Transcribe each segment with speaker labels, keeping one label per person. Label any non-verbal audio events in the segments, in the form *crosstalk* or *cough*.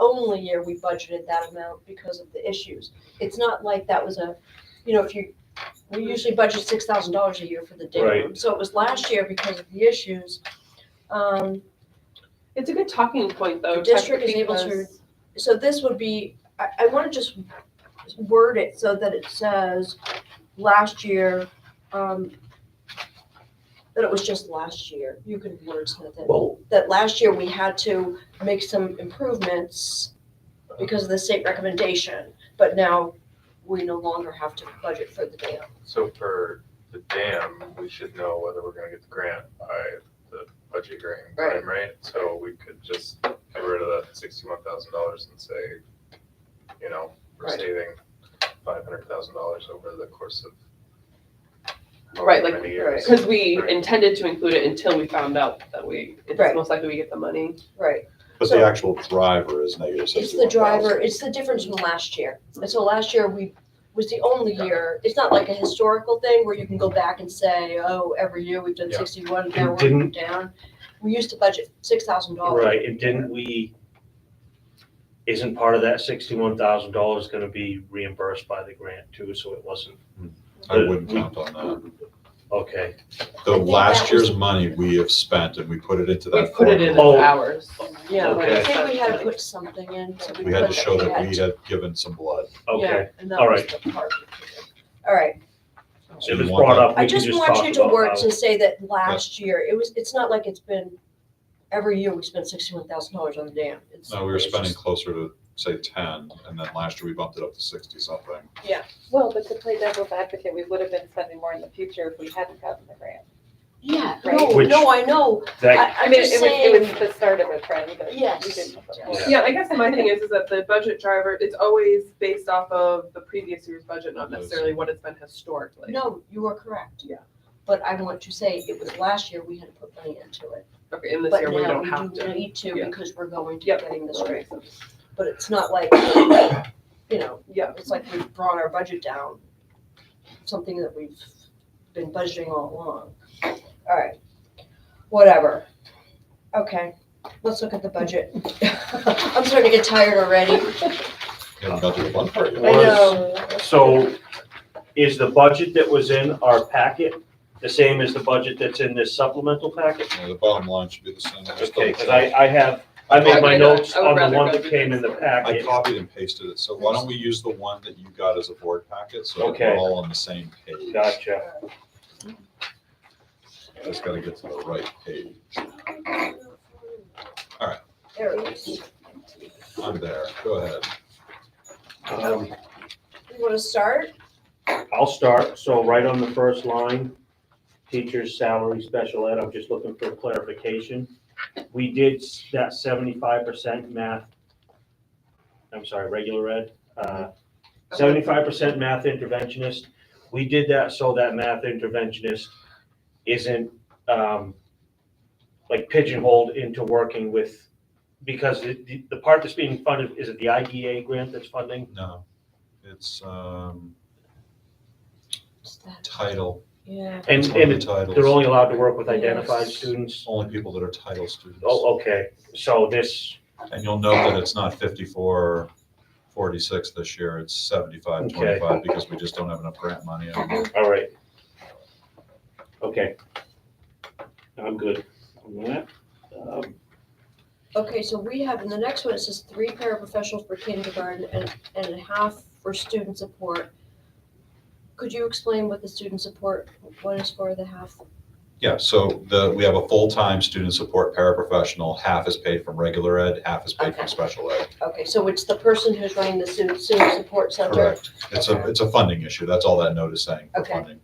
Speaker 1: only year we budgeted that amount because of the issues. It's not like that was a, you know, if you, we usually budget six thousand dollars a year for the day room. So it was last year because of the issues. Um,
Speaker 2: It's a good talking point though.
Speaker 1: The district is able to-
Speaker 2: because-
Speaker 1: so this would be, I, I wanna just word it so that it says last year, um, that it was just last year. You can wordsmith it.
Speaker 3: Well,
Speaker 1: that last year we had to make some improvements because of the state recommendation, but now we no longer have to budget for the dam.
Speaker 4: So for the dam, we should know whether we're gonna get the grant by the budget hearing
Speaker 1: Right.
Speaker 4: time, right? So we could just get rid of that sixty-one thousand dollars and say, you know, we're
Speaker 1: Right.
Speaker 4: saving five hundred thousand dollars over the course of
Speaker 2: Right,
Speaker 4: however
Speaker 2: like-
Speaker 4: many years.
Speaker 2: Because we
Speaker 4: Right.
Speaker 2: intended to include it until we found out that we, it's
Speaker 1: Right.
Speaker 2: most likely we get the money.
Speaker 1: Right.
Speaker 3: but the actual driver is negative
Speaker 1: It's the
Speaker 3: sixty-one
Speaker 1: driver,
Speaker 3: thousand.
Speaker 1: it's the difference from last year. And so last year we, was the only year, it's not like a historical thing where you can go back and say, oh, every year we've done
Speaker 4: Yeah.
Speaker 1: sixty-one,
Speaker 5: And
Speaker 1: now we're
Speaker 5: didn't-
Speaker 1: down. We used to budget six thousand dollars.
Speaker 5: Right, and didn't we, isn't part of that sixty-one thousand dollars gonna be reimbursed by the grant too, so it wasn't,
Speaker 3: I wouldn't count on that.
Speaker 5: okay.
Speaker 3: The
Speaker 1: think
Speaker 3: last
Speaker 1: that
Speaker 3: year's money we have spent and we put it into
Speaker 2: We
Speaker 3: that
Speaker 2: put it in
Speaker 3: formula.
Speaker 2: as
Speaker 5: Oh.
Speaker 2: ours.
Speaker 1: Yeah,
Speaker 5: Okay.
Speaker 1: I think we had to put something in. so
Speaker 3: We had to
Speaker 1: put
Speaker 3: show that we
Speaker 1: had-
Speaker 3: had given some blood.
Speaker 5: Okay,
Speaker 1: Yeah, and that
Speaker 5: all
Speaker 1: was
Speaker 5: right.
Speaker 1: the part. All right,
Speaker 3: So
Speaker 5: it
Speaker 3: you
Speaker 5: was
Speaker 3: want
Speaker 5: brought
Speaker 3: that-
Speaker 5: up,
Speaker 1: I
Speaker 5: we can
Speaker 1: just
Speaker 5: just
Speaker 1: want
Speaker 5: talk
Speaker 1: you to work
Speaker 5: about how.
Speaker 1: to say that last year, it was, it's not like it's been, every year we spent sixty-one thousand dollars on the dam. It's-
Speaker 3: No, we were
Speaker 1: it's
Speaker 3: spending
Speaker 1: just-
Speaker 3: closer to, say, ten, and then last year we bumped it up to sixty something.
Speaker 6: Well, but to play devil's advocate, we would have been spending more in the future if we hadn't gotten the grant.
Speaker 1: Yeah,
Speaker 6: Right.
Speaker 1: no,
Speaker 5: Which-
Speaker 1: no, I know,
Speaker 5: That,
Speaker 1: I,
Speaker 6: I
Speaker 1: I'm
Speaker 6: mean,
Speaker 1: just
Speaker 6: it was, it was
Speaker 1: saying,
Speaker 6: the start of a trend that we
Speaker 1: Yes.
Speaker 6: didn't.
Speaker 5: Yeah.
Speaker 2: Yeah, I guess my thing is, is that the budget driver, it's always based off of the previous year's budget, not necessarily what it's been historically.
Speaker 1: no, you are correct.
Speaker 2: Yeah.
Speaker 1: But I want to say, it was last year we had to put money into it,
Speaker 2: Okay, and this
Speaker 1: but
Speaker 2: year we
Speaker 1: now
Speaker 2: don't
Speaker 1: we
Speaker 2: have
Speaker 1: do
Speaker 2: to.
Speaker 1: need to
Speaker 2: Yeah.
Speaker 1: because we're going to
Speaker 2: Yep.
Speaker 1: getting this
Speaker 2: That
Speaker 1: right.
Speaker 2: makes sense.
Speaker 1: But it's not like, you know,
Speaker 2: Yeah,
Speaker 1: it's like we've brought our budget down, something that we've been budgeting all along. All right, whatever. Okay, let's look at the *laughs* budget. I'm starting to get tired already.
Speaker 3: We haven't got to the blood part
Speaker 1: I
Speaker 3: yet.
Speaker 1: know.
Speaker 5: so is the budget that was in our packet the same as the budget that's in this supplemental packet?
Speaker 3: Yeah, The bottom line should be the same. Just
Speaker 5: Okay, because
Speaker 3: double
Speaker 5: I,
Speaker 3: check.
Speaker 5: I have, I made
Speaker 2: Okay,
Speaker 5: my
Speaker 1: uh,
Speaker 2: no,
Speaker 5: notes
Speaker 2: I would
Speaker 5: on the
Speaker 2: rather
Speaker 5: one
Speaker 2: go
Speaker 5: that
Speaker 2: through
Speaker 5: came in
Speaker 2: this
Speaker 5: the
Speaker 2: one.
Speaker 3: I
Speaker 5: packet.
Speaker 3: copied and pasted it, so why don't we use the one that you got as a board packet, so that
Speaker 5: Okay.
Speaker 3: we're all on the same page?
Speaker 5: Gotcha.
Speaker 3: Just gotta get to the right page.
Speaker 1: There it is.
Speaker 3: I'm there, go ahead.
Speaker 5: Um,
Speaker 1: You wanna start?
Speaker 5: I'll start, so right on the first line, teacher's salary, special ed, I'm just looking for clarification. We did s- that seventy-five percent math, I'm sorry, regular ed, uh, seventy-five percent math interventionist. We did that so that math interventionist isn't, um, like pigeonholed into working with, because the- the, the part that's being funded, is it the IDA grant that's funding?
Speaker 3: No, it's, um,
Speaker 1: What's that?
Speaker 3: title.
Speaker 1: Yeah.
Speaker 5: And,
Speaker 3: It's one of
Speaker 5: and
Speaker 3: the titles.
Speaker 5: They're only allowed to work with identified
Speaker 1: Yes.
Speaker 5: students?
Speaker 3: Only people that are title students.
Speaker 5: Oh, okay, so this,
Speaker 3: And you'll note that it's not fifty-four, forty-six this year, it's seventy-five,
Speaker 5: Okay.
Speaker 3: twenty-five, because we just don't have enough grant money.
Speaker 5: all right. Okay. I'm good on that. Um,
Speaker 1: Okay, so we have, in the next one, it says three paraprofessionals for kindergarten and, and a half for student support. Could you explain what the student support, what is for the half?
Speaker 3: Yeah, so the, we have a full-time student support paraprofessional, half is paid from regular ed, half is paid
Speaker 1: Okay.
Speaker 3: from special ed.
Speaker 1: Okay, so it's the person who's running the student, student support center
Speaker 3: Correct. It's a, it's a funding issue, that's all that note is saying, for
Speaker 1: Okay.
Speaker 3: funding.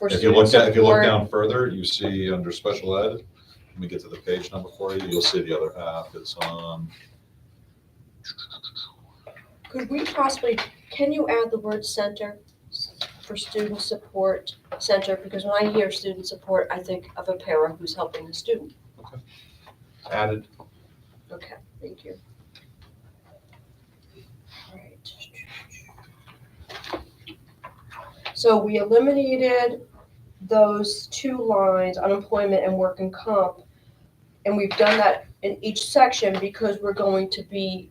Speaker 1: for
Speaker 3: If you
Speaker 1: student
Speaker 3: look, at- if you look
Speaker 1: support?
Speaker 3: down further, you see under special ed, let me get to the page number for you, you'll see the other half, um, it's on,
Speaker 1: Could we possibly, can you add the word center s- for student support center? Because when I hear student support, I think of a para who's helping the student.
Speaker 3: added,
Speaker 1: Okay, thank you. Alright. So we eliminated those two lines, unemployment and work and comp. And we've done that in each section because we're going to be